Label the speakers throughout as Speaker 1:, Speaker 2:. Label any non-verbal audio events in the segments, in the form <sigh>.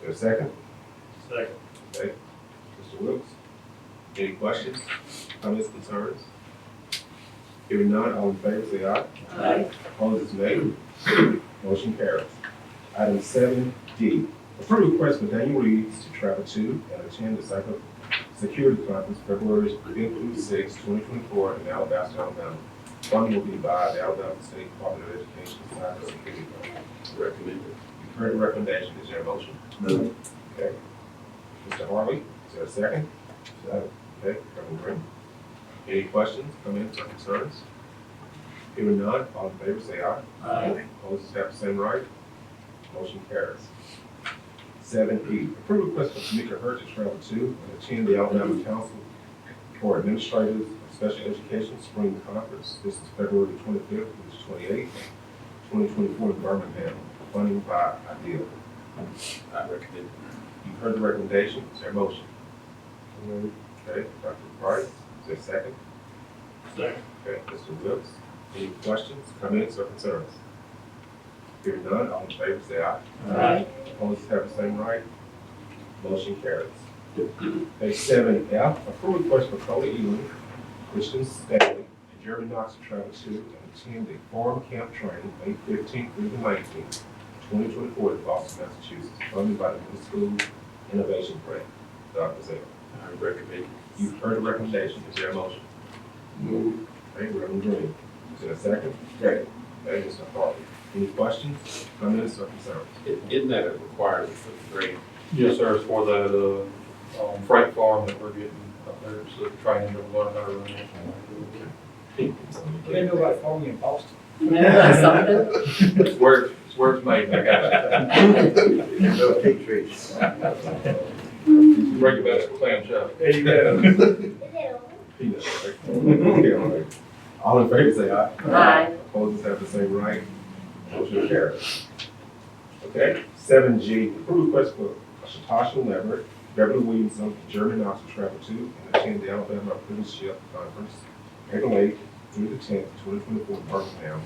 Speaker 1: There a second?
Speaker 2: Second.
Speaker 1: Okay. Mr. Wilkes? Any questions, comments, concerns? Hearing none, all in favor, say aye.
Speaker 2: Aye.
Speaker 1: Opposed, is nay. <clears throat> Motion carries. Item seven D, approve request for Daniel Reeves to travel to and attend the cyber security conference February fifth through sixth, twenty twenty-four in Alabaster, Alabama. Fund will be by the Alabama State Department of Education Cyber Security Program.
Speaker 3: Recommended.
Speaker 1: You've heard the recommendation, is there a motion?
Speaker 3: Move.
Speaker 1: Okay. Mr. Harvey, is there a second? Second. Okay, Reverend Green. Any questions, comments, or concerns? Hearing none, all in favor, say aye.
Speaker 2: Aye.
Speaker 1: Opposed, have the same right. Motion carries. Seven E, approve request for Tamika Hurd to travel to and attend the Alabama Council for Administrators of Special Education Spring Conference. This is February twenty-fifth through the twenty-eighth, twenty twenty-four in Birmingham, funding by IDEA.
Speaker 3: I recommend.
Speaker 1: You've heard the recommendation, is there a motion? Okay, Dr. Price, is there a second?
Speaker 2: Second.
Speaker 1: Okay, Mr. Wilkes, any questions, comments, or concerns? Hearing none, all in favor, say aye.
Speaker 2: Aye.
Speaker 1: Opposed have the same right. Motion carries. Page seven F, approve request for Cody Ewing, Christian Stanley, and Jeremy Knox to travel to and attend the farm camp training May fifteenth through the nineteenth, twenty twenty-four in Boston, Massachusetts, funded by the New School Innovation Grant. Dr. Zell,
Speaker 3: I recommend.
Speaker 1: you've heard the recommendation, is there a motion?
Speaker 3: Move.
Speaker 1: Thank you, Reverend Green. Is there a second?
Speaker 3: Second.
Speaker 1: Thank you, Mr. Harvey. Any questions, comments, or concerns?
Speaker 3: Isn't that a requirement for the grade?
Speaker 4: Yes, sir, it's for that, uh, um, freight farm that we're getting up there, it's the training that we're learning how to run it.
Speaker 2: They know about farming in Boston.
Speaker 5: Yeah, something.
Speaker 4: It's where, it's where it's made, I got
Speaker 3: No pig trees.
Speaker 4: you. Break it back to clam chowder.
Speaker 2: There you go.
Speaker 1: Peanut, right? <laughs> Okay, all right. All in favor, say aye.
Speaker 5: Aye.
Speaker 1: Opposed, have the same right. Motion carries. Okay, seven G, approve request for Shatasha Leverett, Beverly Williamson, Jeremy Knox to travel to and attend the Alabama Apprenticeship Conference, April eighth through the tenth, twenty twenty-four, Birmingham.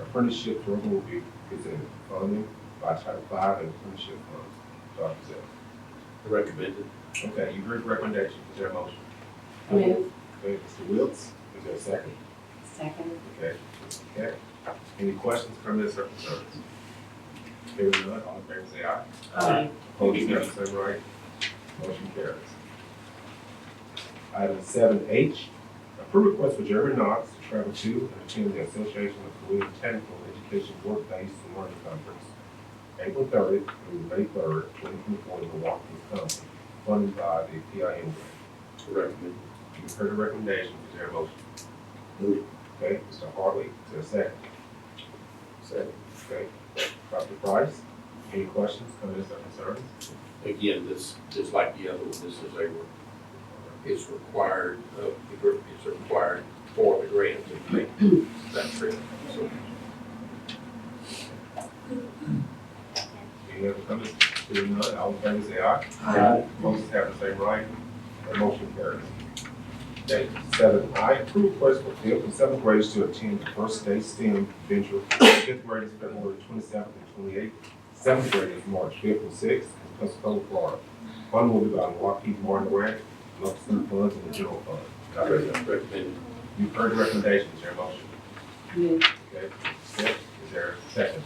Speaker 1: Apprenticeship program will be presented, funding by Title V and Apprenticeship Funds. Dr. Zell.
Speaker 3: Recommended.
Speaker 1: Okay, you heard the recommendation, is there a motion?
Speaker 5: Move.
Speaker 1: Okay, Mr. Wiltz, is there a second?
Speaker 5: Second.
Speaker 1: Okay, okay. Any questions, comments, or concerns? Hearing none, all in favor say aye.
Speaker 5: Aye.
Speaker 1: Opposed, have the same right. Motion carries. Item seven H, approve request for Jeremy Knox to travel to and attend the Association of Career Technical Education Work-Based Learning Conference, April thirtieth through May third, twenty twenty-four, in Milwaukee, Wisconsin, funded by the PIM grant.
Speaker 3: Recommended.
Speaker 1: You've heard the recommendation, is there a motion?
Speaker 3: Move.
Speaker 1: Okay, Mr. Hartley, is there a second?
Speaker 3: Second.
Speaker 1: Okay, Dr. Price, any questions, comments, or concerns?
Speaker 3: Again, this, just like the other one, this is a, re- it's required of the group, it's required for the grant to make that trip. So
Speaker 1: Any other comments? Hearing none, all in favor say "Ah, aye.
Speaker 3: Aye.
Speaker 1: Opposed, have the same right. The motion carries. Okay, seven I, approve request for fifth and seventh graders to attend the first day STEM venture. Fifth grade is February twenty-seventh and twenty-eighth. Seventh grade is March fifth and sixth in Pensacola, Florida. Fund will be by Lockheed Martin Grant, Love City Funds, and the General Fund.
Speaker 3: I recommend.
Speaker 1: You've heard the recommendations, is there a motion?
Speaker 5: Move.
Speaker 1: Okay, Steph, is there a second?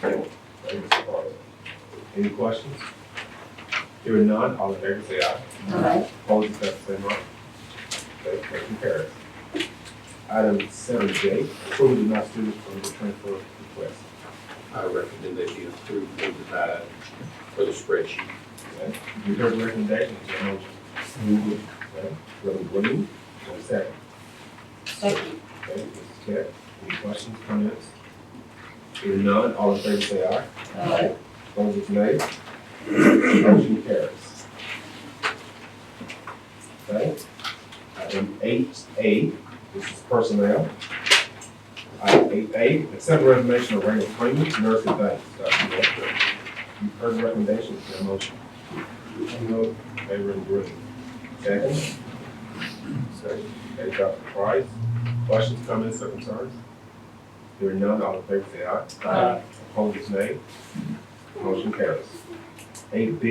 Speaker 1: Thank you, Mr. Carter. Any questions? Hearing none, all in favor say aye.
Speaker 5: Aye.
Speaker 1: Opposed, is that the same right? Okay, motion carries. Item seven J, approval of denied students from the transfer request.
Speaker 3: I recommend that be approved and denied for the spreadsheet.
Speaker 1: Okay, You heard the recommendation, is there a motion? Okay, Reverend Green, is there a second?
Speaker 5: Second.
Speaker 1: Okay, Mrs. Cat, any questions, comments? Hearing none, all in favor say aye.
Speaker 5: Aye.
Speaker 1: Opposed, is nay. Motion carries. Okay. Item eight A, this is personnel. Item eight A, accept resignation of Raymond Freeman, nurse at Banks. Dr. Walker. You've heard the recommendation, is there a motion? No. Favor and Green. Second. Second. Okay, Dr. Price, questions, comments, or concerns? Hearing none, all in favor say aye.
Speaker 5: Aye.
Speaker 1: Opposed, is nay. Motion carries. Eight B,